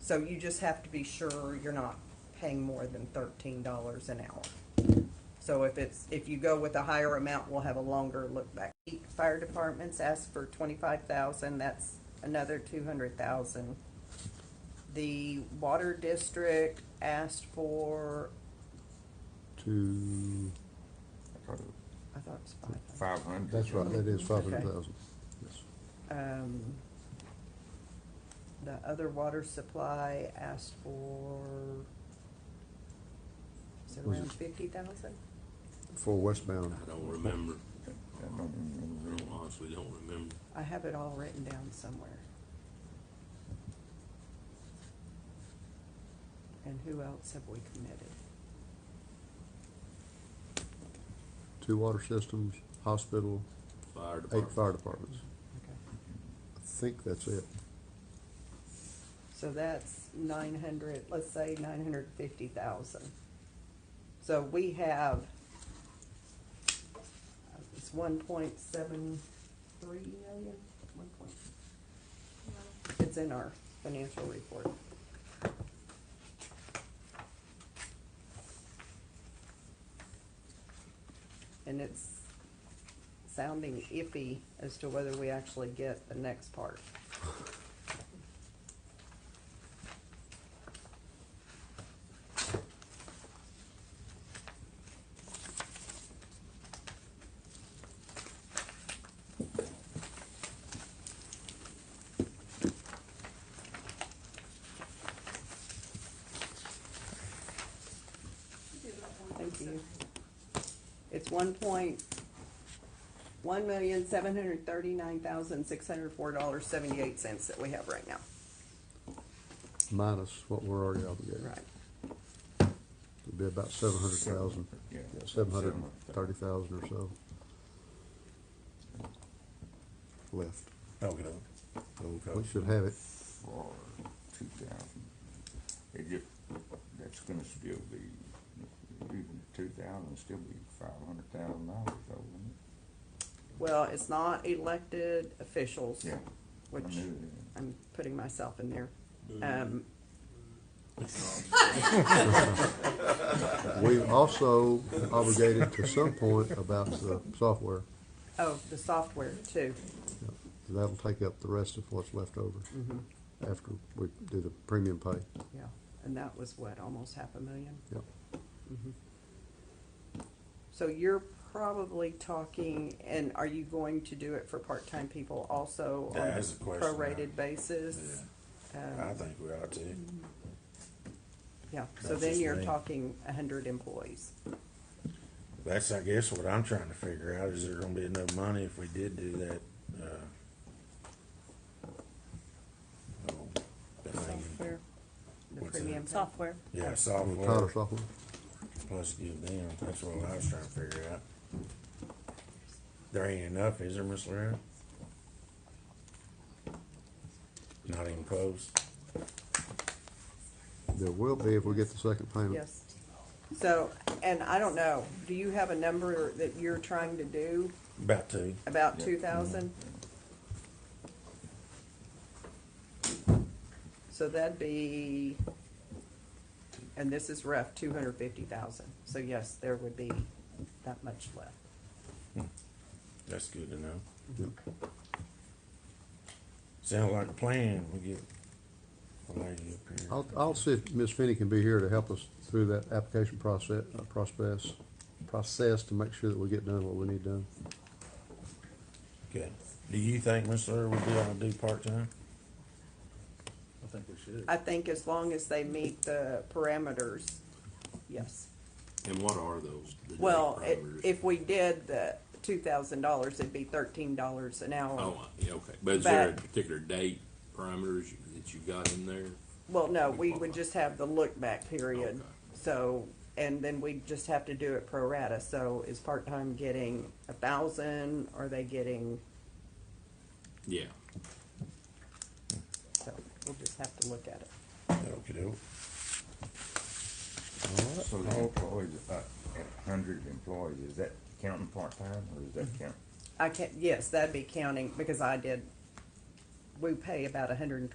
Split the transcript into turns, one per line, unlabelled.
So you just have to be sure you're not paying more than thirteen dollars an hour. So if it's, if you go with a higher amount, we'll have a longer look back. Fire departments asked for twenty-five thousand, that's another two hundred thousand. The water district asked for,
to,
I thought it was five.
Five hundred.
that's right, that is five hundred
Okay.
thousand. Yes.
Um, the other water supply asked for, is it
Was
around
it-
fifty thousand?
For westbound,
I don't remember. I don't- honestly don't remember.
I have it all written down somewhere. And who else have we committed?
two water systems, hospital,
Fire
eight
department.
fire departments.
Okay.
I think that's it.
So that's nine hundred, let's say nine hundred fifty thousand. So we have, uh, it's one point seven three million, one point. It's in our financial report. And it's sounding iffy as to whether we actually get the next part. Thank you. It's one point, one million, seven hundred thirty-nine thousand, six hundred four dollars, seventy-eight cents that we have right now.
minus what we're already obligated.
Right.
It'd be about seven hundred thousand,
Yeah.
seven hundred and thirty thousand or so left.
Okay.
We
Okay.
should have it.
For two thousand. It just, that's gonna still be, even two thousand, still be five hundred thousand dollars though, wouldn't
Well, it's not elected officials,
it? Yeah. I
which
knew
I'm putting myself in there. Um,
We've also obligated to some point about the software.
oh, the software too.
That'll take up the rest of what's left over
Mm-hmm.
Mhm.
after we do the premium pay.
Yeah, and that was what, almost half a million?
Yep.
Mhm. Mm-hmm. So you're probably talking, and are you going to do it for part-time people also on
That is
a
the question, yeah.
prorated basis?
I
Um,
think we ought to.
Yeah, so
That's
then
just
you're
me.
talking a hundred employees.
That's, I guess, what I'm trying to figure out, is there gonna be enough money if we did do that, uh? oh, thing.
Software.
The
What's
premium
that?
pay.
Software.
Yeah,
The Tyler
software,
software,
plus give them, that's what I was trying to figure out. There ain't enough, is there, Miss Lara? Not even close?
there will be if we get the second payment.
Yes. So, and I don't know, do you have a number that you're trying to do
About two.
about
Yeah.
two thousand? So that'd be, and this is rough, two hundred fifty thousand. So yes, there would be that much left.
That's good to know. Sounds like a plan. We get a lady up here.
I'll, I'll see if Ms. Finney can be here to help us through that application process, uh, process, process to make sure that we get done what we need done.
Good. Do you think Miss Lara would be able to do part-time?
I think we should.
I think as long as they meet the parameters, yes.
And what are those? the
Well, i-
parameters?
if we did the two thousand dollars, it'd be thirteen dollars an hour.
Oh, I- yeah, okay. But is there a
But-
particular date parameters you- that you got in there?
Well, no, we would just have the look-back period,
Okay.
so, and then we'd just have to do it pro rata, so is part-time getting a thousand, are they getting,
Yeah.
so, we'll just have to look at it.
Okey-doke.
it. So the employees, uh, at hundred employees, is that counting part-time or is that count?
I can't, yes, that'd be counting, because I did, we pay about a hundred and